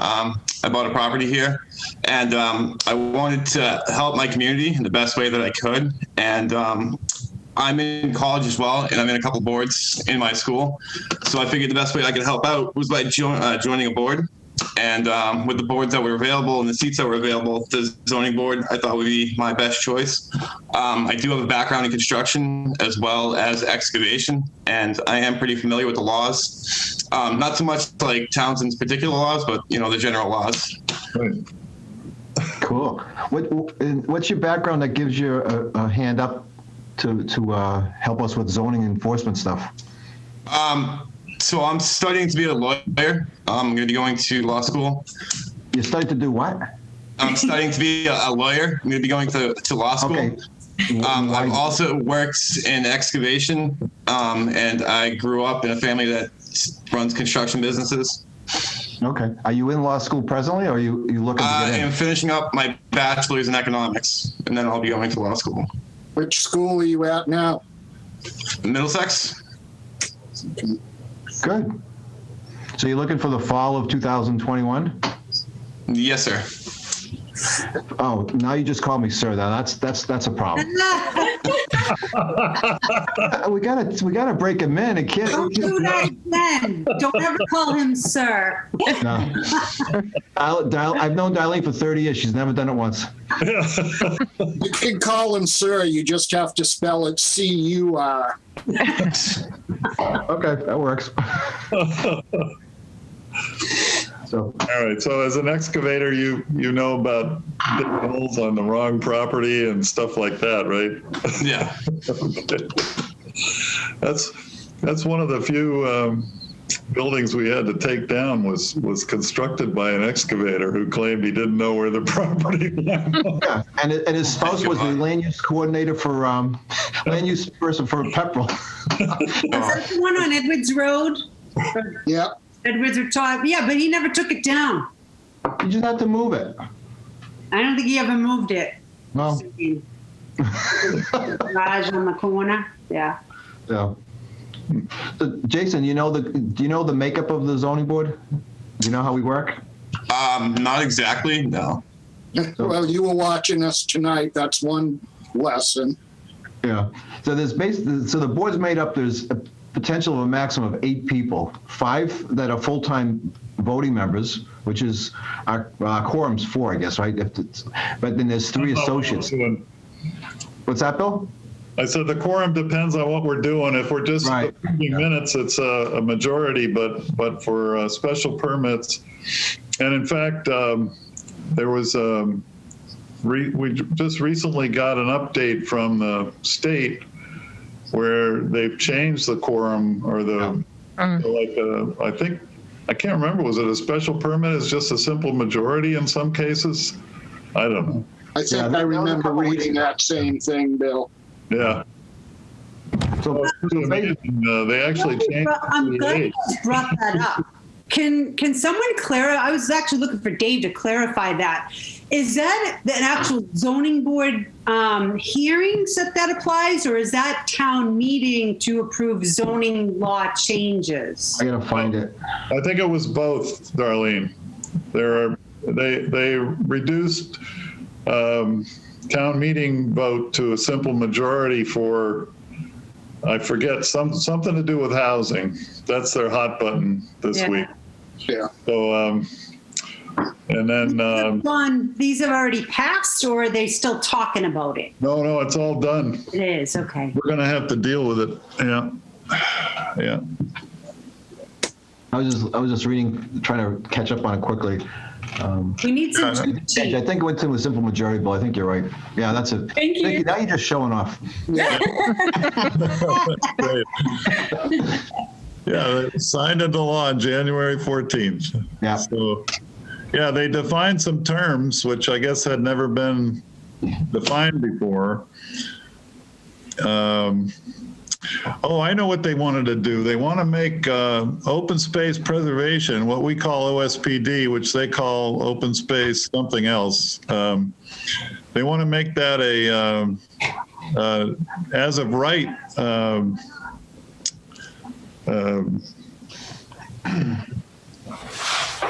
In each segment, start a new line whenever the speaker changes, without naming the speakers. Um, I bought a property here, and um, I wanted to help my community in the best way that I could. And um, I'm in college as well, and I'm in a couple boards in my school. So I figured the best way I could help out was by jo- uh, joining a board. And um, with the boards that were available and the seats that were available, the zoning board I thought would be my best choice. Um, I do have a background in construction as well as excavation, and I am pretty familiar with the laws. Um, not so much like Townsend's particular laws, but you know the general laws.
Cool. What, and what's your background that gives you a, a hand up to, to uh, help us with zoning enforcement stuff?
Um, so I'm studying to be a lawyer. Um, I'm going to be going to law school.
You started to do what?
I'm studying to be a, a lawyer. I'm going to be going to, to law school.
Okay.
Um,
Why-
I've also worked in excavation, um, and I grew up in a family that s- runs construction businesses.
Okay. Are you in law school presently, or are you, you looking to
Uh, I
get
am
in?
finishing up my bachelor's in economics, and then I'll be going to law school.
Which school are you at now?
Middlesex?
Good. So you're looking for the fall of 2021?
Yes, sir.
Oh, now you just call me sir. Now that's that's that's a problem. Uh, we gotta we gotta break him in. It can't.
Don't do that again. Don't ever call him sir.
No. I'll, Dil- I've known Darlene for 30 years. She's never done it once.
You can call him sir, you just have to spell it C U R.
Okay, that works. so
All right, so as an excavator, you, you know about digging holes on the wrong property and stuff like that, right?
Yeah.
That's, that's one of the few um, buildings we had to take down was, was constructed by an excavator who claimed he didn't know where the property was.
yeah, and it- and his spouse
you,
was the
Mark.
land use coordinator for um, land use person for Pepperell.
Is that the one on Edwards Road?
Yep.
Edwards or Todd? Yeah, but he never took it down.
You just have to move it.
I don't think he ever moved it.
Well,
Garage on the corner, yeah.
yeah. So, Jason, you know the do you know the makeup of the zoning board? You know how we work?
Um, not exactly, no.
Well, you were watching us tonight. That's one lesson.
Yeah. So there's base. So the board's made up. There's a potential of a maximum of eight people. Five that are full-time voting members, which is our, our quorum's four, I guess, right? If it's, but then there's three associates. What's that, Bill?
I said the quorum depends on what we're doing. If we're just
Right.
approving minutes, it's a, a majority, but, but for uh, special permits. And in fact, um, there was, um, re, we just recently got an update from the state where they've changed the quorum or the, like, uh, I think, I can't remember, was it a special permit? It's just a simple majority in some cases? I don't know.
I think
Yeah, that-
I
that was a
remember
couple weeks
reading
ago.
that same thing, Bill.
Yeah.
So,
Uh, They actually changed.
I'm glad you guys brought that up. Can, can someone clarify, I was actually looking for Dave to clarify that. Is that an actual zoning board um, hearings that that applies? Or is that town meeting to approve zoning law changes?
I gotta find it.
I think it was both, Darlene. There are, they, they reduced um, town meeting vote to a simple majority for, I forget, some, something to do with housing. That's their hot button this
Yeah.
week.
Yeah.
So, um, and then, um,
One, these have already passed, or are they still talking about it?
no, no, it's all done.
It is, okay.
We're gonna have to deal with it. Yeah. Yeah.
I was just I was just reading, trying to catch up on it quickly. Um,
We need some.
I think it went to a simple majority, Bill. I think you're right. Yeah, that's it.
Thank
Nikki,
you.
now you're just showing off.
Great. Yeah, they signed into law on January 14th.
Yeah.
So, yeah, they defined some terms, which I guess had never been defined before. Um, Oh, I know what they wanted to do. They want to make uh, open space preservation, what we call OSPD, which they call open space something else. Um, They want to make that a, um, uh, as of right, um, um,
right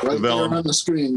there
Development.
on the screen.